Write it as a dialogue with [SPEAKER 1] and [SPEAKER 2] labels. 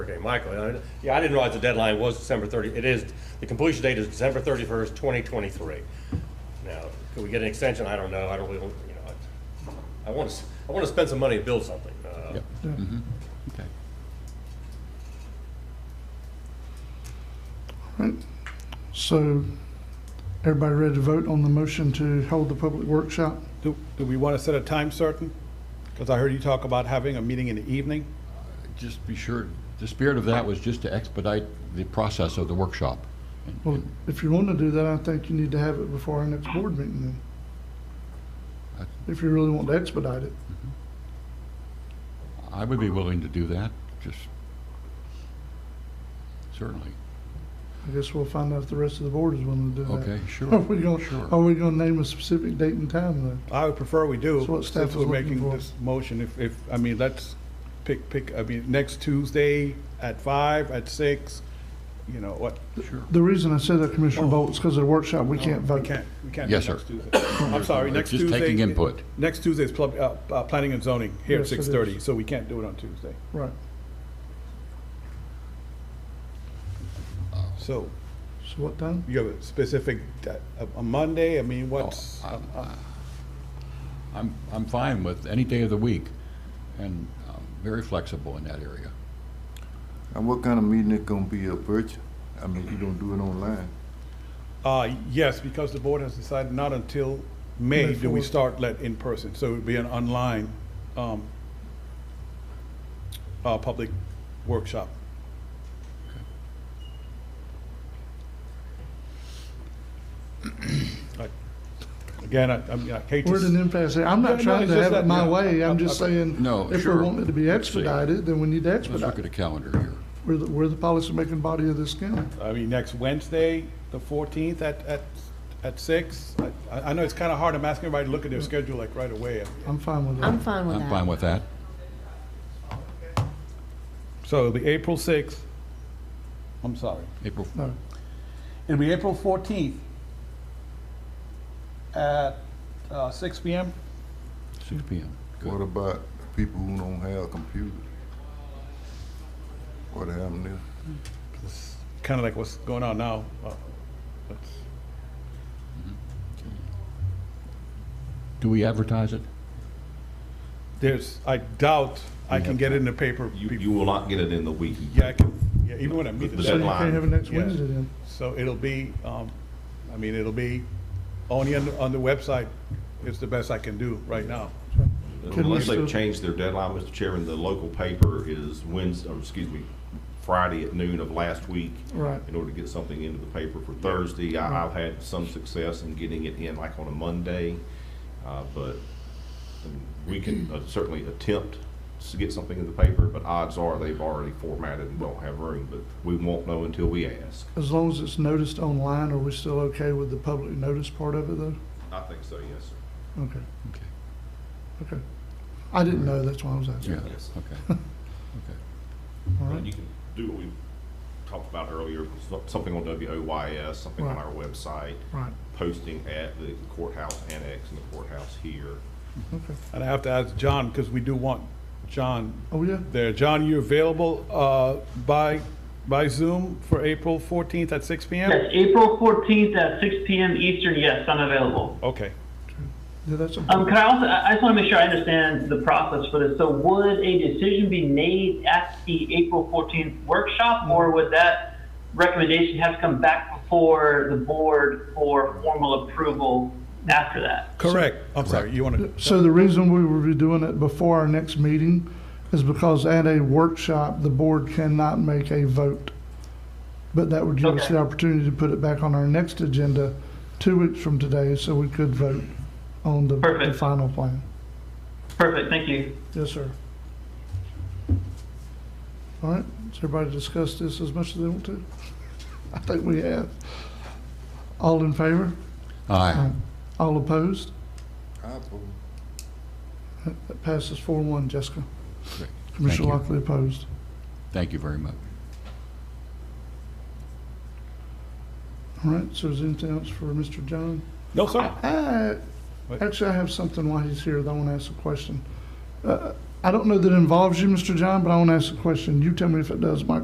[SPEAKER 1] Okay, Michael, I- yeah, I didn't realize the deadline was December 30, it is, the completion date is December 31st, 2023. Now, could we get an extension? I don't know, I don't really, want- you know, I- I want to, I want to spend some money to build something. Uh,
[SPEAKER 2] Okay.
[SPEAKER 3] So, everybody ready to vote on the motion to hold the public workshop?
[SPEAKER 4] Do, do we want to set a time certain? Because I heard you talk about having a meeting in the evening.
[SPEAKER 2] Just be sure, the spirit of that was just to expedite the process of the workshop.
[SPEAKER 3] Well, if you want to do that, I think you need to have it before our next board meeting then. If you really want to expedite it.
[SPEAKER 2] I would be willing to do that, just, certainly.
[SPEAKER 3] I guess we'll find out if the rest of the board is willing to do that.
[SPEAKER 2] Okay,
[SPEAKER 3] Are
[SPEAKER 2] sure.
[SPEAKER 3] we going,
[SPEAKER 2] Sure.
[SPEAKER 3] are we going to name a specific date and time though?
[SPEAKER 4] I would prefer we do,
[SPEAKER 3] That's what staff
[SPEAKER 4] since
[SPEAKER 3] is
[SPEAKER 4] we're
[SPEAKER 3] looking
[SPEAKER 4] making
[SPEAKER 3] for.
[SPEAKER 4] this motion, if, if, I mean, let's pick, pick, I mean, next Tuesday at five, at six, you know, what, Um,
[SPEAKER 2] Sure.
[SPEAKER 3] The reason I said that, Commissioner Bolt, is because of the workshop, we can't
[SPEAKER 4] we
[SPEAKER 3] vote.
[SPEAKER 4] can't, we can't do
[SPEAKER 2] Yes, sir.
[SPEAKER 4] next Tuesday. I'm sorry, next
[SPEAKER 2] Just
[SPEAKER 4] Tuesday.
[SPEAKER 2] taking input.
[SPEAKER 4] Next Tuesday is plub- uh, uh, planning and zoning here at
[SPEAKER 3] Yes, it
[SPEAKER 4] six
[SPEAKER 3] is.
[SPEAKER 4] thirty, so we can't do it on Tuesday.
[SPEAKER 3] Right.
[SPEAKER 4] So
[SPEAKER 3] So what time?
[SPEAKER 4] you have a specific, uh, a- a Monday, I mean, what's,
[SPEAKER 2] Oh, I- I'm, I'm fine with any day of the week, and um, very flexible in that area.
[SPEAKER 5] And what kind of meeting it gonna be, a virtual? I mean, you don't do it online.
[SPEAKER 4] Uh, yes, because the board has decided not until May
[SPEAKER 3] May
[SPEAKER 4] do we
[SPEAKER 3] fourth.
[SPEAKER 4] start let in person, so it would be an online, um, uh, public workshop. I- Again, I, I mean, I hate to,
[SPEAKER 3] We're at an
[SPEAKER 4] s-
[SPEAKER 3] impasse here. I'm
[SPEAKER 4] Yeah,
[SPEAKER 3] not
[SPEAKER 4] no,
[SPEAKER 3] trying
[SPEAKER 4] it's
[SPEAKER 3] to have
[SPEAKER 4] just
[SPEAKER 3] it
[SPEAKER 4] that,
[SPEAKER 3] my
[SPEAKER 4] yeah,
[SPEAKER 3] way.
[SPEAKER 4] I-
[SPEAKER 3] I'm just
[SPEAKER 4] I-
[SPEAKER 3] saying,
[SPEAKER 2] No,
[SPEAKER 3] if we
[SPEAKER 2] sure.
[SPEAKER 3] want it to be
[SPEAKER 2] Let's see.
[SPEAKER 3] expedited, then we need to
[SPEAKER 2] Let's look at
[SPEAKER 3] expedite.
[SPEAKER 2] the calendar here.
[SPEAKER 3] We're the, we're the policymaking body of this county.
[SPEAKER 4] I mean, next Wednesday, the fourteenth at, at, at six. I, I know it's kinda hard, I'm asking everybody to look at their schedule like right away.
[SPEAKER 3] I'm fine with
[SPEAKER 6] I'm
[SPEAKER 3] that.
[SPEAKER 6] fine with
[SPEAKER 2] I'm
[SPEAKER 6] that.
[SPEAKER 2] fine with that.
[SPEAKER 4] So it'll be April sixth, I'm sorry.
[SPEAKER 2] April,
[SPEAKER 3] No,
[SPEAKER 4] It'll be April 14th at uh, 6 PM.
[SPEAKER 2] six PM. Good.
[SPEAKER 5] What about people who don't have computers? What happened there?
[SPEAKER 4] Kind of like what's going on now. Uh, that's-
[SPEAKER 2] Do we advertise it?
[SPEAKER 4] There's, I doubt I
[SPEAKER 2] We
[SPEAKER 4] can
[SPEAKER 2] have
[SPEAKER 4] get it in the paper.
[SPEAKER 7] You,
[SPEAKER 4] be-
[SPEAKER 7] you will not get it in the week.
[SPEAKER 4] Yeah, I can, yeah, even when I meet the
[SPEAKER 7] The
[SPEAKER 3] So you
[SPEAKER 4] deadline.
[SPEAKER 3] can't have it next
[SPEAKER 4] Yeah.
[SPEAKER 3] Wednesday then.
[SPEAKER 4] So it'll be, um, I mean, it'll be only on, the- on the website is the best I can do right now.
[SPEAKER 3] Can we
[SPEAKER 7] Unless
[SPEAKER 3] still-
[SPEAKER 7] they've changed their deadline, Mr. Chairman, the local paper is Wednesday, or excuse me, Friday at noon of last week.
[SPEAKER 3] Right.
[SPEAKER 7] In order to get something into the paper for Thursday. I, I've had some success in getting it in like on a Monday. Uh, but I mean, we can uh, certainly attempt to get something in the paper, but odds are they've already formatted and don't have room, but we won't know until we ask.
[SPEAKER 3] As long as it's noticed online, are we still okay with the public notice part of it though?
[SPEAKER 7] I think so, yes, sir.
[SPEAKER 3] Okay,
[SPEAKER 2] Okay.
[SPEAKER 3] okay. I didn't know, that's why I was
[SPEAKER 2] Yeah,
[SPEAKER 3] asking.
[SPEAKER 7] Yes.
[SPEAKER 2] okay. Okay.
[SPEAKER 3] All
[SPEAKER 7] Well,
[SPEAKER 3] right.
[SPEAKER 7] You can do what we talked about earlier, so- something on WOYS, something on
[SPEAKER 3] Right.
[SPEAKER 7] our website,
[SPEAKER 3] Right,
[SPEAKER 7] posting at the courthouse annex and the courthouse here.
[SPEAKER 3] okay.
[SPEAKER 4] And I have to ask John, because we do want John
[SPEAKER 3] Oh, yeah,
[SPEAKER 4] there. John, you available uh, by, by Zoom for April 14th at 6 PM?
[SPEAKER 8] Yes, April 14th at 6 PM Eastern, yes, I'm available.
[SPEAKER 4] Okay.
[SPEAKER 3] yeah, that's, a-
[SPEAKER 8] Um, can I also, I I just want to make sure I understand the process for this. So would a decision be made at the April 14th workshop, or would that recommendation have to come back before the board for formal approval after that?
[SPEAKER 4] Correct. I'm sorry, you want to?
[SPEAKER 3] so the reason we will be doing it before our next meeting is because at a workshop, the board cannot make a vote. But that would give us
[SPEAKER 8] Okay.
[SPEAKER 3] the opportunity to put it back on our next agenda two weeks from today, so we could vote on the, the
[SPEAKER 8] Perfect.
[SPEAKER 3] final plan.
[SPEAKER 8] Perfect, thank you.
[SPEAKER 3] Yes, sir. All right, has everybody discussed this as much as they want to? I think we have. All in favor?
[SPEAKER 2] Aye.
[SPEAKER 3] Um, All opposed?
[SPEAKER 5] I vote.
[SPEAKER 3] That passes four one, Jessica.
[SPEAKER 2] Great.
[SPEAKER 3] Commissioner
[SPEAKER 2] you.
[SPEAKER 3] Lockley opposed.
[SPEAKER 2] Thank you very much.
[SPEAKER 3] All right, so is there anything else for Mr. John?
[SPEAKER 4] No, sir.
[SPEAKER 3] I-
[SPEAKER 4] What?
[SPEAKER 3] Actually, I have something while he's here that I want to ask a question. Uh, I don't know that it involves you, Mr. John, but I want to ask a question. You tell me if it does, Mike.